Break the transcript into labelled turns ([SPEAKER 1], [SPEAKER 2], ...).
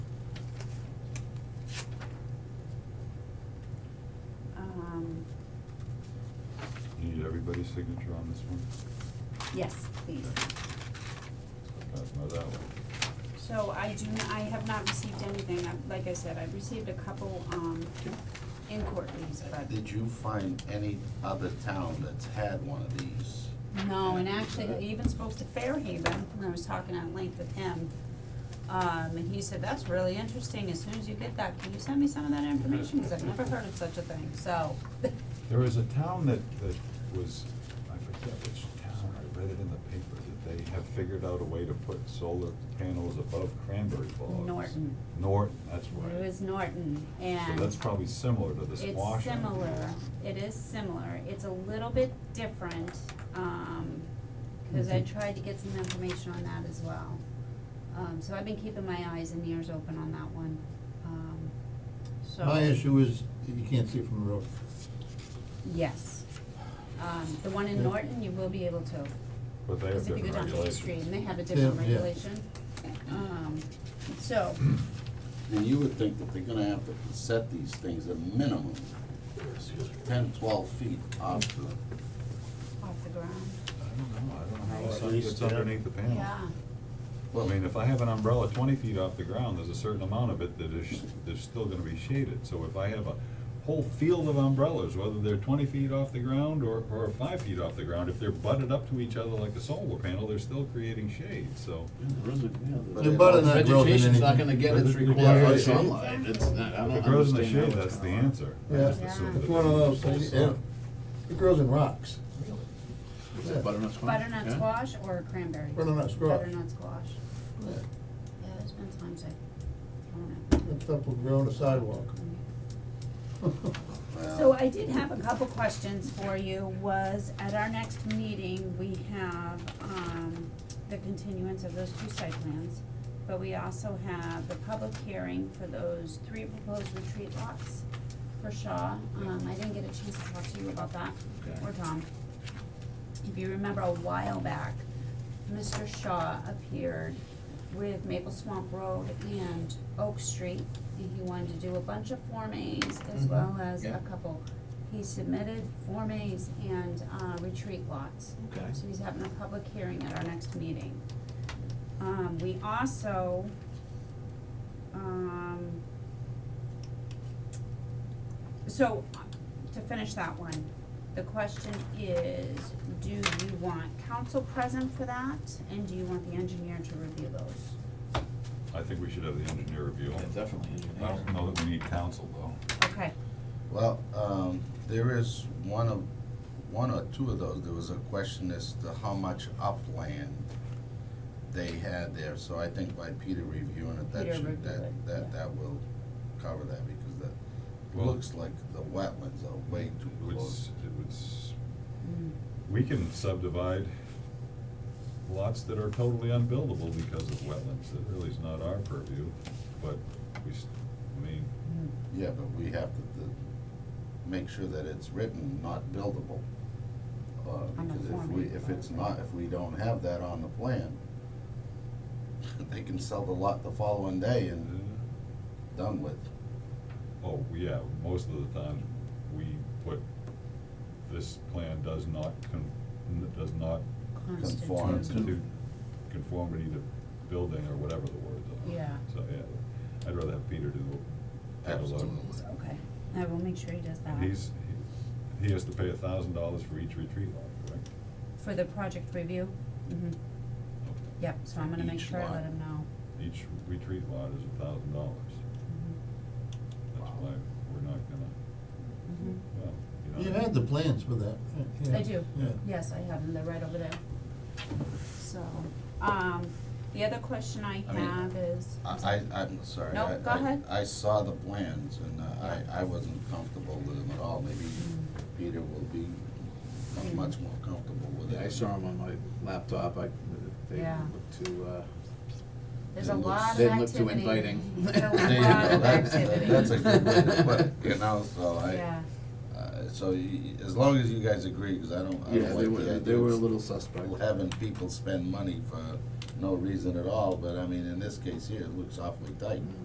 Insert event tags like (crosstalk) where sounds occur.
[SPEAKER 1] Um,
[SPEAKER 2] everybody's signature on this one?
[SPEAKER 1] Yes, please.
[SPEAKER 2] Okay, so that one.
[SPEAKER 1] So I do, I have not received anything, I- like I said, I've received a couple, um, inquiries, but
[SPEAKER 3] Did you find any other town that's had one of these?
[SPEAKER 1] no, and actually, I even spoke to Fairhaven, when I was talking at length with him. Um, and he said, that's really interesting, as soon as you get that, can you send me some of that information, because I've never heard of such a thing, so. (laughs)
[SPEAKER 2] There is a town that, that was, I forget which town, I read it in the paper, that they have figured out a way to put solar panels above cranberry bogs.
[SPEAKER 1] Norton.
[SPEAKER 2] Norton, that's right.
[SPEAKER 1] It was Norton,
[SPEAKER 2] So
[SPEAKER 1] and.
[SPEAKER 2] that's probably similar to the
[SPEAKER 1] It's
[SPEAKER 2] squash. idea.
[SPEAKER 1] similar, it is similar, it's a little bit different, um, cause I tried to get some information on that as well. Um, so I've been keeping my eyes and ears open on that one, um, so.
[SPEAKER 4] My issue is, you can't see from the road.
[SPEAKER 1] Yes, um, the one in
[SPEAKER 4] Yeah.
[SPEAKER 1] Norton, you will be able to,
[SPEAKER 2] But they have
[SPEAKER 1] cause if you
[SPEAKER 2] different
[SPEAKER 1] go down to the street,
[SPEAKER 2] regulations.
[SPEAKER 1] and they have a different
[SPEAKER 4] Yeah, yeah.
[SPEAKER 1] regulation, um,
[SPEAKER 4] (clears throat)
[SPEAKER 1] so,
[SPEAKER 3] And you would think that they're gonna have to set these things a minimum, ten, twelve feet off the,
[SPEAKER 1] off the ground,
[SPEAKER 2] I don't know, I don't know how
[SPEAKER 1] Right.
[SPEAKER 2] the
[SPEAKER 5] At
[SPEAKER 2] sun
[SPEAKER 5] least,
[SPEAKER 2] gets
[SPEAKER 5] yeah.
[SPEAKER 2] underneath the panel.
[SPEAKER 1] yeah,
[SPEAKER 2] I mean, if I have an umbrella twenty feet off the ground, there's a certain amount of it that is, there's still gonna be shaded. So if I have a whole field of umbrellas, whether they're twenty feet off the ground or, or five feet off the ground, if they're butted up to each other like a solar panel, they're still creating shade, so.
[SPEAKER 3] but
[SPEAKER 4] The
[SPEAKER 3] it-
[SPEAKER 4] butternut grows in
[SPEAKER 5] Vegetation's not
[SPEAKER 4] anything.
[SPEAKER 5] gonna get its
[SPEAKER 4] But the-
[SPEAKER 5] required
[SPEAKER 4] yeah, yeah.
[SPEAKER 5] sunlight, it's not, I
[SPEAKER 2] If it
[SPEAKER 5] don't
[SPEAKER 2] grows in the
[SPEAKER 5] understand
[SPEAKER 2] shade,
[SPEAKER 5] how
[SPEAKER 2] that's the
[SPEAKER 5] gonna work.
[SPEAKER 2] answer. I
[SPEAKER 4] Yeah.
[SPEAKER 2] just assume
[SPEAKER 1] Yeah.
[SPEAKER 2] that
[SPEAKER 4] It's one of those,
[SPEAKER 2] full
[SPEAKER 4] things, yeah,
[SPEAKER 2] sun.
[SPEAKER 4] it grows in rocks.
[SPEAKER 5] Is
[SPEAKER 4] Yeah.
[SPEAKER 5] it butternut squash?
[SPEAKER 1] butternut
[SPEAKER 5] Yeah.
[SPEAKER 1] squash or cranberry?
[SPEAKER 4] Butternut squash.
[SPEAKER 1] Butternut squash.
[SPEAKER 4] Yeah,
[SPEAKER 1] Yeah, there's been times I've thrown it.
[SPEAKER 4] That stuff will grow on the
[SPEAKER 5] (laughs)
[SPEAKER 4] sidewalk.
[SPEAKER 3] well,
[SPEAKER 1] So I did have a couple questions for you, was at our next meeting, we have, um, the continuance of those two site plans, but we also have the public hearing for those three proposed retreat lots for Shaw. Um, I didn't get a chance to talk to you about that, or Tom. If you remember a while back, Mr. Shaw appeared with Maple Swamp Road and Oak Street. And He wanted to do a bunch of Form As as
[SPEAKER 4] Mhm.
[SPEAKER 1] well as a
[SPEAKER 5] Mm-hmm. Yeah.
[SPEAKER 1] couple. He submitted Form As and, uh, retreat lots.
[SPEAKER 5] Okay.
[SPEAKER 1] So he's having a public hearing at our next meeting. Um, we also, um, so, to finish that one, the question is, do you want council present for that, and do you want the engineer to review those?
[SPEAKER 2] I think we should have the engineer review
[SPEAKER 5] Yeah,
[SPEAKER 2] them.
[SPEAKER 5] Definitely
[SPEAKER 2] I
[SPEAKER 5] engineer.
[SPEAKER 2] don't know that we need counsel though.
[SPEAKER 1] Okay,
[SPEAKER 3] Well, um, there is one of, one or two of those, there was a question as to how much upland they had there, so I think by Peter reviewing it, that
[SPEAKER 1] Peter
[SPEAKER 3] should,
[SPEAKER 1] reviewed
[SPEAKER 3] that,
[SPEAKER 1] it,
[SPEAKER 3] that,
[SPEAKER 1] yeah.
[SPEAKER 3] that will cover that, because that, it
[SPEAKER 2] Well-
[SPEAKER 3] looks like the wetlands are way too
[SPEAKER 2] It would,
[SPEAKER 3] close.
[SPEAKER 2] s- it would s-
[SPEAKER 1] Mm-hmm.
[SPEAKER 2] We can subdivide lots that are totally unbuildable because of wetlands, that really is not our purview, but we, s- I mean,
[SPEAKER 3] Yeah, but we have to, the, make sure that it's written not buildable. Uh,
[SPEAKER 1] On the
[SPEAKER 3] because if
[SPEAKER 1] Form
[SPEAKER 3] we,
[SPEAKER 1] A
[SPEAKER 3] if it's
[SPEAKER 1] plan.
[SPEAKER 3] not, if we don't have that on the plan, (laughs) they can sell the lot the following day
[SPEAKER 2] uh,
[SPEAKER 3] and done with.
[SPEAKER 2] oh, yeah, most of the time, we put, this plan does not con, does not
[SPEAKER 1] constitute,
[SPEAKER 3] Conform
[SPEAKER 2] constitute conformity to building or whatever the words are.
[SPEAKER 1] Yeah.
[SPEAKER 2] So, yeah, I'd rather have Peter do, have a look.
[SPEAKER 3] Absolutely.
[SPEAKER 1] okay, I will make sure he does that.
[SPEAKER 2] He's, he- he has to pay a thousand dollars for each retreat lot, correct?
[SPEAKER 1] For the project review, mhm,
[SPEAKER 2] Okay.
[SPEAKER 1] yep, so I'm gonna make
[SPEAKER 3] Each
[SPEAKER 1] sure I
[SPEAKER 3] lot.
[SPEAKER 1] let him know.
[SPEAKER 2] Each retreat lot is a thousand dollars. That's
[SPEAKER 3] Wow.
[SPEAKER 2] why we're not gonna,
[SPEAKER 1] Mhm.
[SPEAKER 2] well, you know.
[SPEAKER 4] You had the plans for that. yeah,
[SPEAKER 1] Mm-hmm. I do,
[SPEAKER 4] Yeah.
[SPEAKER 1] yes, I have them, they're right over there. So, um, the other question I
[SPEAKER 3] I mean,
[SPEAKER 1] have is.
[SPEAKER 3] I, I, I'm sorry.
[SPEAKER 1] No,
[SPEAKER 3] I-
[SPEAKER 1] go
[SPEAKER 3] I-
[SPEAKER 1] ahead.
[SPEAKER 3] I saw the plans and uh, I, I wasn't comfortable with them at all. Maybe
[SPEAKER 1] mm-hmm.
[SPEAKER 3] Peter will be much more comfortable with it.
[SPEAKER 5] Yeah, I saw them on my laptop, I, they
[SPEAKER 1] Yeah.
[SPEAKER 5] look too, uh,
[SPEAKER 1] There's a
[SPEAKER 3] Didn't look-
[SPEAKER 1] lot of
[SPEAKER 5] didn't
[SPEAKER 1] activity.
[SPEAKER 5] look too inviting. (laughs)
[SPEAKER 1] There's a
[SPEAKER 3] There
[SPEAKER 1] lot
[SPEAKER 3] you go.
[SPEAKER 1] of
[SPEAKER 3] That's, that-
[SPEAKER 1] activity.
[SPEAKER 3] (laughs) that's a good way to put it, you know, so
[SPEAKER 1] (laughs)
[SPEAKER 3] I,
[SPEAKER 1] Yeah,
[SPEAKER 3] uh, so y- as long as you guys agree, because I don't, I
[SPEAKER 5] yeah,
[SPEAKER 3] don't
[SPEAKER 5] they were,
[SPEAKER 3] like the
[SPEAKER 5] they were a
[SPEAKER 3] idea
[SPEAKER 5] little suspect.
[SPEAKER 3] of having people spend money for no reason at all, but I mean, in this case here, it looks awfully tight.